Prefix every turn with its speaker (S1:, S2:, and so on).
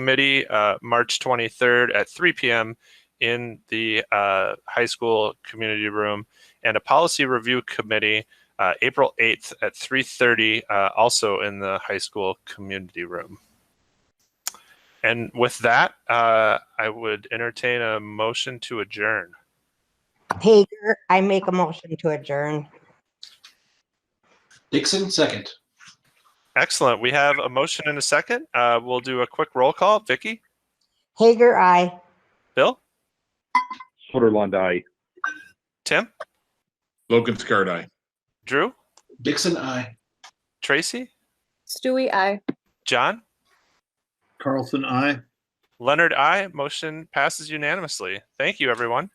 S1: Committee, uh, March 23rd at 3 PM in the uh, high school community room, and a Policy Review Committee, uh, April 8th at 3:30, uh, also in the high school community room. And with that, uh, I would entertain a motion to adjourn.
S2: Hager, I make a motion to adjourn.
S3: Dixon, second.
S1: Excellent. We have a motion and a second. Uh, we'll do a quick roll call. Vicky,
S2: Hager, I.
S1: Bill,
S4: Sutherland, aye.
S1: Tim,
S5: Logan Scardi. aye.
S1: Drew,
S3: Dixon, I.
S1: Tracy,
S6: Stewie, I.
S1: John,
S7: Carlson, I.
S1: Leonard, I. Motion passes unanimously. Thank you, everyone.